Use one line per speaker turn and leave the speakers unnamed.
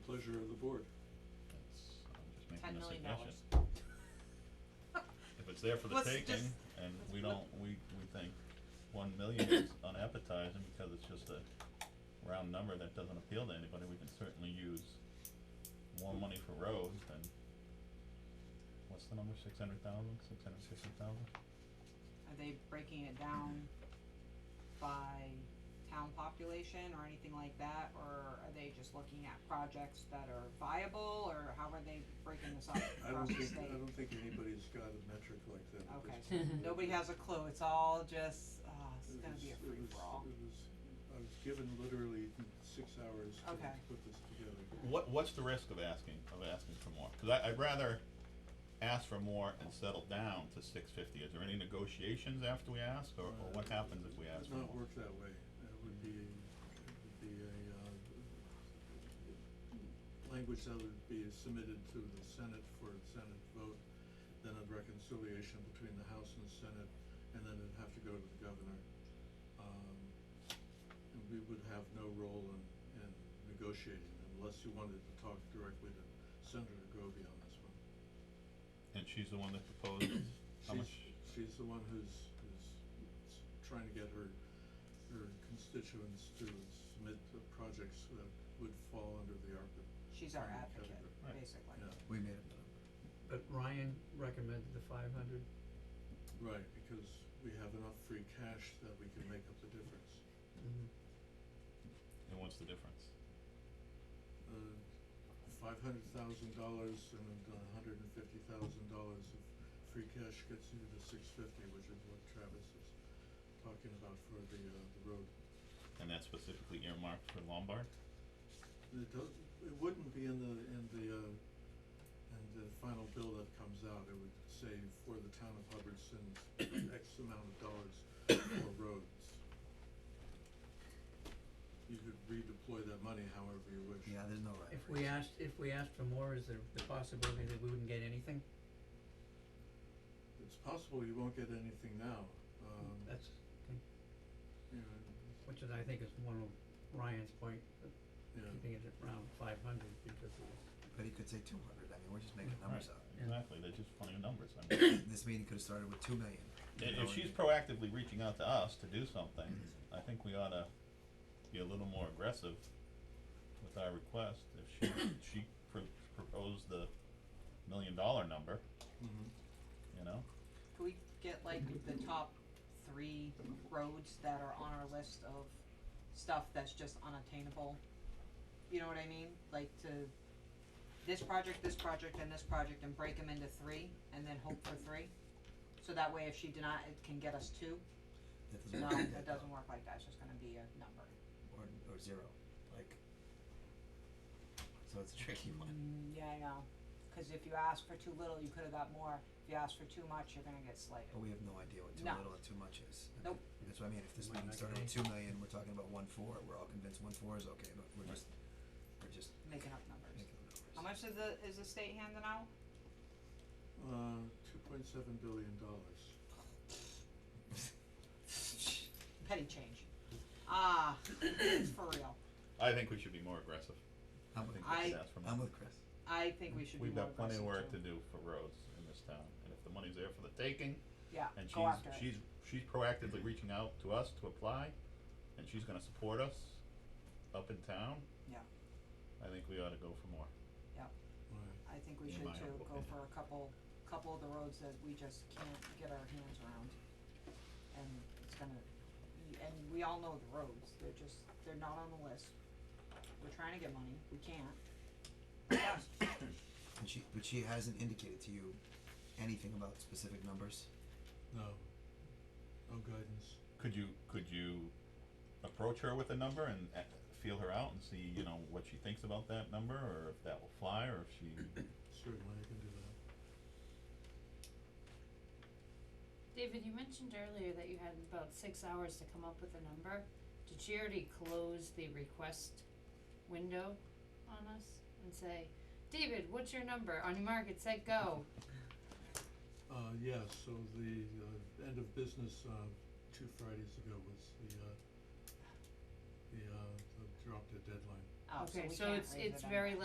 pleasure of the board.
That's, I'm just
Ten
making a
million
suggestion.
dollars.
If it's there for the
Let's
taking
just-
and
let's
we
put-
don't, we, we think one million is unappetizing because it's just a round number that doesn't appeal to anybody, we can certainly use more money for roads than, what's the number, six hundred thousand, six hundred sixty thousand?
Are they breaking it down by town population or anything like that, or are they just looking at projects that are viable, or how are they breaking this up
I don't
across the
think,
state?
I don't think anybody's got a metric like that at
Okay,
this
so
point.
nobody has a clue, it's all just, uh, it's
It
gonna be
was-
a free for all.
It was, it was, I was given literally six hours to
Okay.
to put this together.
What, what's the risk of asking, of asking for more? Cause I, I'd rather ask for more and settle down to six fifty, is there any negotiations after we ask, or, or what
Uh,
happens if we ask for
It would
more?
not work that way, it would be, it would be a, uh, language that would be submitted to the Senate for a Senate vote, then a reconciliation between the House and the Senate, and then it'd have to go to the governor. Um, and we would have no role in, in negotiating unless you wanted to talk directly to Senator Goby on this one.
And she's the one that proposed how much?
She's, she's the one who's, who's s- trying to get her, her constituents to submit the projects that would fall under the ARPA.
She's our
funding
advocate,
Right.
basically.
category.
We made up the number.
But Ryan recommended the five hundred,
Yeah, right, because we have enough free cash that we can make up the difference.
And what's the difference?
Uh, five hundred thousand dollars and a hundred and fifty thousand dollars of free cash gets you to six fifty, which is what Travis is talking about for the, uh, the road
And that's specifically earmarked for Lombard?
It does, it wouldn't be in the, in the, uh, in the final bill that comes out, it would say for the town of Hubbardston, X amount of dollars for roads. You could redeploy that money however you wish.
Yeah, there's no right.
if
or
we
wrong.
asked, if we asked for more, is there the possibility that we wouldn't get anything?
It's possible you won't get anything now, um,
That's,
you know,
which is, I think is one of Ryan's point, of
you know,
keeping it at around five hundred because of the
But he could say two hundred, I mean, we're just making numbers up.
Yeah.
Exactly, they're just funny numbers, I mean,
This meeting could've started with two million.
i-
you know,
if she's
and-
proactively reaching out to us to do something, I think we oughta be a little more aggressive with our request, if she, she pro- proposed the million dollar number,
mhm.
you know?
Could we get like the top three roads that are on our list of stuff that's just unattainable? You know what I mean? Like to this project, this project, and this project, and break them into three, and then hope for three? So that way, if she deny, it can get us two?
That doesn't
No,
work like
it
that,
doesn't
though.
work like that, it's just gonna be a number.
Or, or zero, like. So it's a tricky one.
Mm, yeah, I know, cause if you ask for too little, you could've got more, if you ask for too much, you're gonna get slated.
But we have no idea what too
No.
little and too much is. I
Nope.
think- That's what I mean, if this
Might
meeting
not
started
get
with two million, we're talking about one four, we're all convinced one four is okay, but we're
Right.
just, we're just
Making up numbers.
making up
How
numbers.
much is the, is the state handing out?
Uh, two point seven billion dollars.
petty change. Ah, for real.
I think we should be more aggressive,
I'm
I
with,
think we should
I-
ask for more.
I'm with Chris.
I think we should be
We've
more
got plenty of work
aggressive too.
to do for roads in this town, and if the money's there for the taking,
Yeah,
And
go after
she's,
it.
she's, she's proactively reaching out to us to apply, and she's gonna support us up in town.
Yeah.
I think we ought to go for more.
Right.
I think we
in
should
my
too, go
opinion.
for a couple, couple of the roads that we just can't get our hands around. And it's gonna, y- and we all know the roads, they're just, they're not on the list. We're trying to get money, we can't. Yeah,
And she, but she hasn't indicated to you anything about specific numbers?
No, no guidance.
Could you, could you approach her with a number and uh, feel her out and see, you know, what she thinks about that number, or if that will fly, or if she,
Certainly, I can do that.
David, you mentioned earlier that you had about six hours to come up with a number. Did she already close the request window on us and say, David, what's your number? On your mark, it said go.
Uh, yeah, so the, uh, end of business, uh, two Fridays ago was the, uh, the, uh, the drop dead deadline.
Oh, so
Okay,
we
so
Oh, can't
it's,
raise
it's
it
very
anyway.